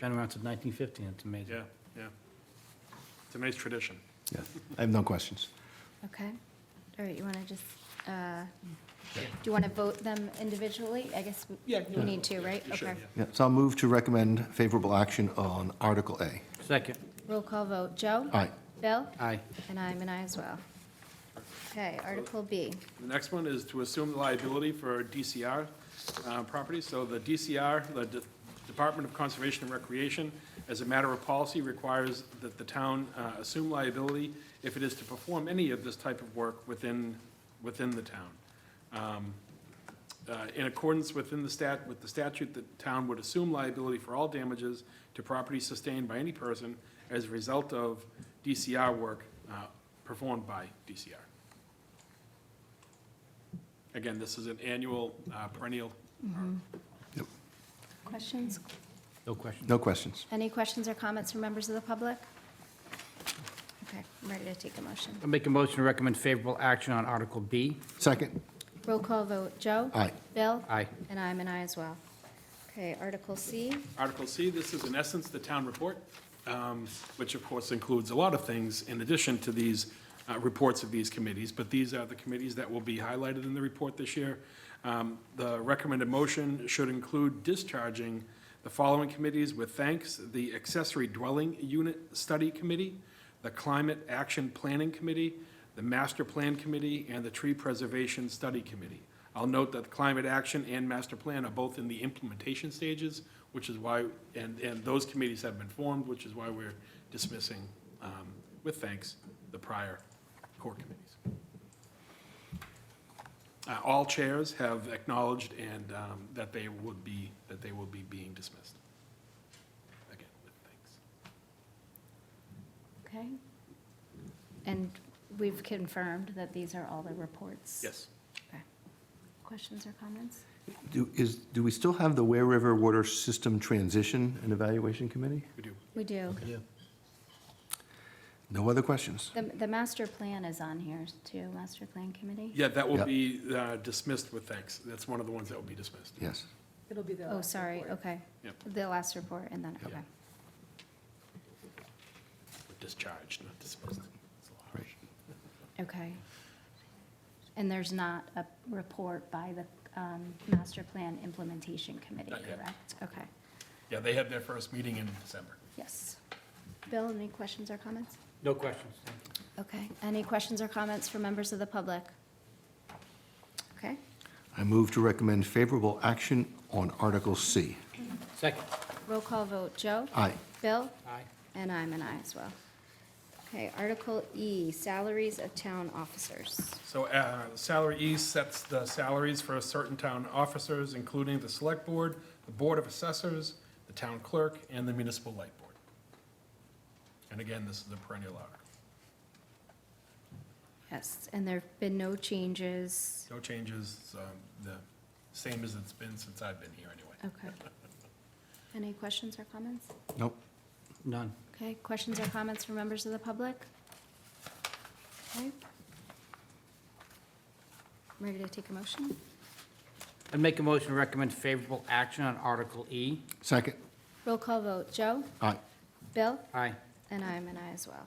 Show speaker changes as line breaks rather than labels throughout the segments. been around since 1950, and it's amazing.
Yeah, yeah. It's a nice tradition.
Yeah, I have no questions.
Okay, all right, you want to just, uh, do you want to vote them individually? I guess we-
Yeah,
we need to, right?
You should,
Okay.
yeah.
Yeah, so I'll move to recommend favorable action on Article A.
Second,
Roll call vote, Joe?
Aye.
Bill?
aye.
And I'm an aye as well. Okay, Article B.
The next one is to assume liability for DCR uh, property. So the DCR, the De- Department of Conservation and Recreation, as a matter of policy, requires that the town uh, assume liability if it is to perform any of this type of work within, within the town. Um, uh, In accordance within the stat, with the statute, the town would assume liability for all damages to property sustained by any person as a result of DCR work uh, performed by DCR. Again, this is an annual uh, perennial.
Yep.
Questions?
No question.
No questions.
Any questions or comments from members of the public? Okay, I'm ready to take a motion.
I make a motion to recommend favorable action on Article B.
Second,
Roll call vote, Joe?
Aye.
Bill?
Aye.
And I'm an aye as well. Okay, Article C.
Article C, this is in essence the town report, um, which of course includes a lot of things in addition to these uh, reports of these committees, but these are the committees that will be highlighted in the report this year. Um, The recommended motion should include discharging the following committees with thanks, the Accessory Dwelling Unit Study Committee, the Climate Action Planning Committee, the Master Plan Committee, and the Tree Preservation Study Committee. I'll note that climate action and master plan are both in the implementation stages, which is why, and, and those committees have been formed, which is why we're dismissing, um, with thanks, the prior core committees. Uh, all chairs have acknowledged and, um, that they would be, that they will be being dismissed. Again, with thanks.
Okay. And we've confirmed that these are all the reports?
Yes.
Okay. Questions or comments?
do, is, do we still have the Ware River Water System Transition and Evaluation Committee?
We do.
We do.
No other questions?
The, the master plan is on here too, master plan committee?
Yeah, that will
Yeah.
be uh, dismissed with thanks. That's one of the ones that will be dismissed.
Yes.
It'll be the.
Oh,
last
sorry,
report.
okay.
Yep.
The last report and then,
Yeah.
okay.
Discharged, not dismissed. It's a lot.
Right.
Okay. And there's not a report by the um, master plan implementation committee,
Not yet.
correct? Okay,
Yeah, they had their first meeting in December.
yes. Bill, any questions or comments?
No questions.
Okay, any questions or comments from members of the public? Okay,
I move to recommend favorable action on Article C.
Second,
roll call vote, Joe?
Aye.
Bill?
aye.
And I'm an aye as well. Okay, Article E, salaries of town officers.
So uh, Salary E sets the salaries for certain town officers, including the Select Board, the Board of Assessors, the Town Clerk, and the Municipal Light Board. And again, this is the perennial article.
Yes, and there've been no changes.
No changes, um, the same as it's been since I've been here anyway.
Okay. Any questions or comments?
Nope.
None.
Okay, questions or comments from members of the public? Okay. Ready to take a motion?
I make a motion to recommend favorable action on Article E.
Second,
Roll call vote, Joe?
aye.
Bill?
Aye.
And I'm an aye as well.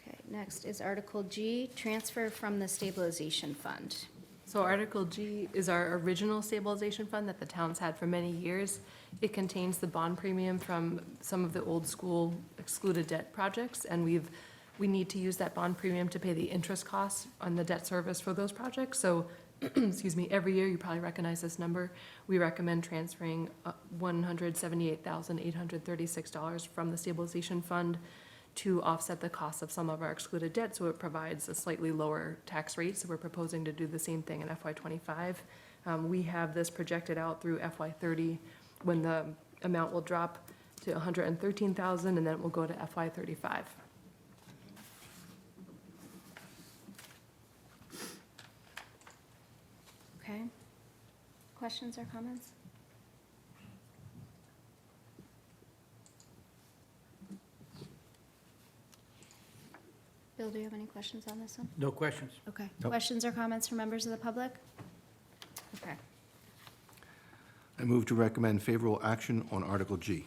Okay, next is Article G, transfer from the stabilization fund.
So Article G is our original stabilization fund that the town's had for many years. It contains the bond premium from some of the old school excluded debt projects, and we've, we need to use that bond premium to pay the interest costs on the debt service for those projects. So, excuse me, every year, you probably recognize this number, we recommend transferring uh, one hundred seventy-eight thousand eight hundred thirty-six dollars from the stabilization fund to offset the cost of some of our excluded debt, so it provides a slightly lower tax rate, so we're proposing to do the same thing in FY twenty-five. Um, we have this projected out through FY thirty, when the amount will drop to $113,000, and then it will go to FY thirty-five.
Okay. Questions or comments? Bill, do you have any questions on this one?
No questions.
Okay.
Nope.
Questions or comments from members of the public? Okay.
I move to recommend favorable action on Article G.